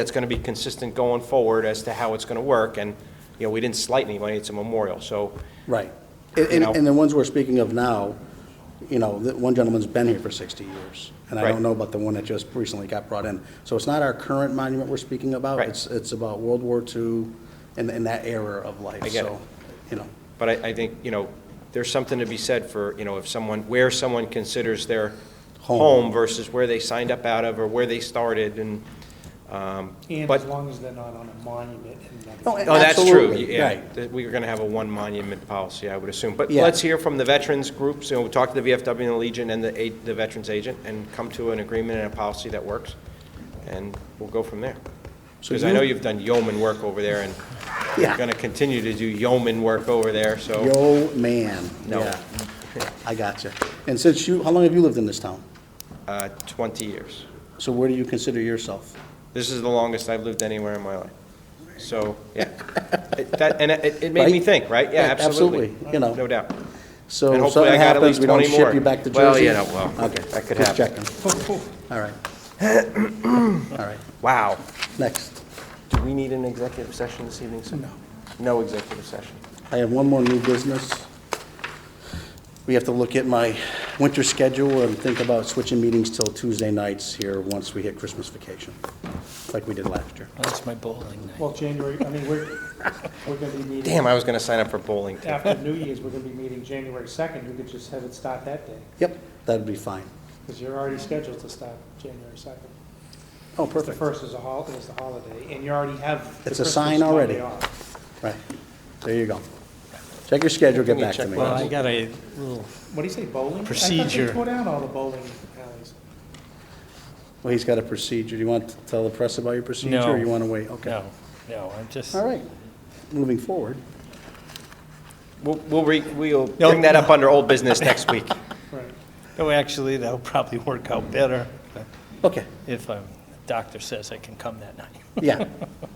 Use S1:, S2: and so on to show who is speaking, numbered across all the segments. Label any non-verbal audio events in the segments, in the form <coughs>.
S1: that's going to be consistent going forward as to how it's going to work, and, you know, we didn't slight anybody, it's a memorial, so,
S2: Right. And-
S1: You
S2: And,
S1: know?
S2: and the ones we're speaking of now, you know, that one gentleman's been here for 60 years. And I
S1: Right.
S2: don't know about the one that just recently got brought in. So it's not our current monument we're speaking about.
S1: Right.
S2: It's, it's about World War II and, and that era of life.
S1: I get it.
S2: So, You know,
S1: but I, I think, you know, there's something to be said for, you know, if someone, where someone considers their
S2: Home.
S1: home versus where they signed up out of or where they started, and, um,
S3: And
S1: but,
S3: as long as they're not on a monument and
S2: Oh,
S3: nothing.
S2: and-
S1: oh, that's true,
S2: Absolutely,
S1: yeah.
S2: right.
S1: Th- We're going to have a one monument policy, I would assume, but
S2: Yeah.
S1: let's hear from the veterans groups, you know, we'll talk to the VFW and the Legion and the, a- the veterans agent, and come to an agreement and a policy that works, and we'll go from there.
S2: So
S1: Because I
S2: you-
S1: know you've done yeoman work over there, and you're
S2: Yeah.
S1: going to continue to do yeoman work over there, so.
S2: yo, man.
S1: Oh. No.
S2: Yeah. I got you. And since you, how long have you lived in this town?
S1: Uh, 20 years.
S2: So where do you consider yourself?
S1: This is the longest I've lived anywhere in my life. So,
S2: <laughs>
S1: yeah. It- that- And it it made me
S2: Right?
S1: think, right? Yeah,
S2: Yeah,
S1: absolutely.
S2: absolutely, you know.
S1: No doubt.
S2: So
S1: And
S2: if
S1: hopefully
S2: something
S1: I got at
S2: happens,
S1: least
S2: we don't
S1: 20 more.
S2: ship you back to Jersey?
S1: Well, you know, well,
S2: Okay.
S1: that could
S2: Just
S1: happen. <laughs>
S2: checking. All
S1: <coughs>
S2: right. All right,
S1: Wow.
S2: next.
S1: Do we need an executive session this evening, sir? No. No executive session.
S2: I have one more new business. We have to look at my winter schedule and think about switching meetings till Tuesday nights here once we hit Christmas vacation, like we did last year.
S4: That's my bowling night.
S3: Well, January, I mean, we're, we're gonna be meeting.
S1: Damn, I was going to sign up for bowling. too.
S3: After New Year's, we're gonna be meeting January second, you could just have it start that day,
S2: Yep, that'd be fine.
S3: because you're already scheduled to start January second.
S2: Oh,
S3: The
S2: perfect.
S3: first is a hol, is the holiday, and you already have. the
S2: It's a
S3: Christmas
S2: sign already.
S3: holiday off.
S2: Right, there you go. Check your schedule,
S1: Give
S2: get
S1: me a
S2: back to
S1: check
S2: me.
S4: Well, I got a little,
S3: What do you say, bowling? I thought
S4: Procedure.
S3: they tore down all the bowling alleys.
S2: Well, he's got a procedure. Do you want to tell the press about your procedure?
S4: No.
S2: Or you want to wait? Okay.
S4: no, no, I'm just,
S2: All right, moving forward.
S1: We'll, we'll re- we'll
S4: No.
S1: bring that up under old business next week.
S3: Right.
S4: no, actually, that'll probably work out better
S2: Okay,
S4: if um, the doctor says I can come that night.
S2: yeah.
S4: <laughs>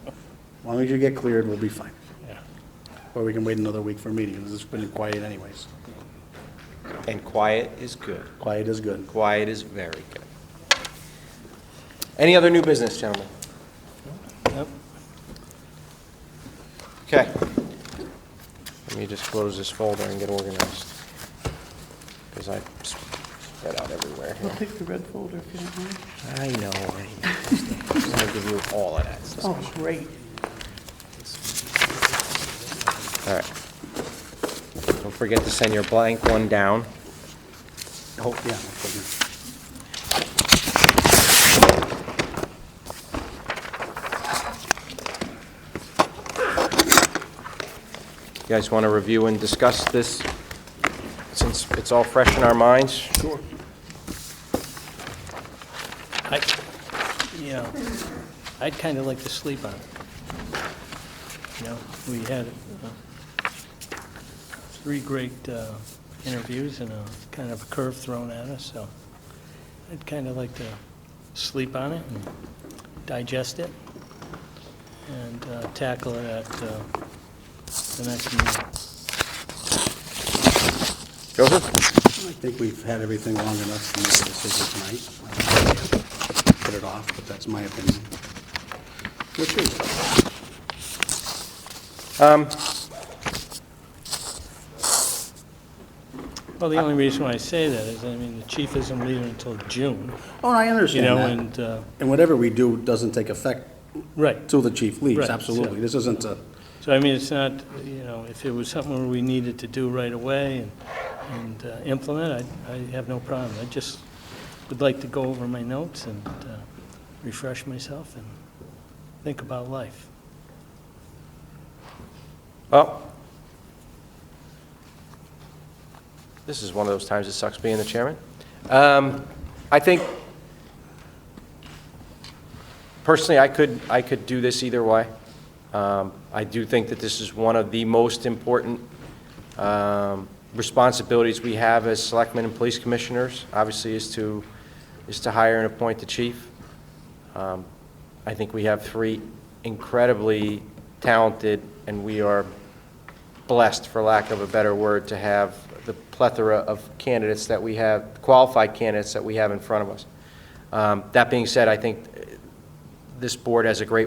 S2: As long as you get cleared, we'll be fine.
S4: Yeah.
S2: Or we can wait another week for meetings. It's been quiet anyways.
S1: And quiet is good.
S2: Quiet is good.
S1: Quiet is very good. Any other new business, gentlemen?
S4: Nope.
S1: Okay. Let me just close this folder and get organized. Because I spread out everywhere here.
S2: Take the red folder if you don't mind.
S1: I know, I know. I'm gonna give you all of that stuff.
S2: Oh, great.
S1: All right. Don't forget to send your blank one down.
S2: Oh, yeah. I'll put it
S1: You guys want to review and discuss this, since it's all fresh in our minds?
S4: I, you know, I'd kind of like to sleep on it. You know, we had uh, three great uh, interviews and a kind of a curve thrown at us, so I'd kind of like to sleep on it and digest it and uh, tackle it at uh, the next meeting.
S1: Joseph?
S2: in. I think we've had everything long enough to make a decision tonight. Put it off, but that's my opinion. What's yours?
S4: Well, the only reason why I say that is, I mean, the chief isn't leaving until June,
S2: Oh, I
S4: you
S2: understand
S4: know,
S2: that.
S4: and, uh,
S2: And whatever we do doesn't take effect
S4: right.
S2: till the chief leaves,
S4: Right,
S2: absolutely.
S4: yeah.
S2: This isn't a,
S4: So I mean, it's not, you know, if it was something where we needed to do right away and, and uh, implement, I, I have no problem. I just would like to go over my notes and uh, refresh myself and think about life.
S1: Well, this is one of those times it sucks being the chairman. Um, I think, personally, I could, I could do this either way. Um, I do think that this is one of the most important um, responsibilities we have as selectmen and police commissioners, obviously, is to, is to hire and appoint the chief. Um, I think we have three incredibly talented, and we are blessed, for lack of a better word, to have the plethora of candidates that we have, qualified candidates that we have in front of us. Um, That being said, I think this board has a great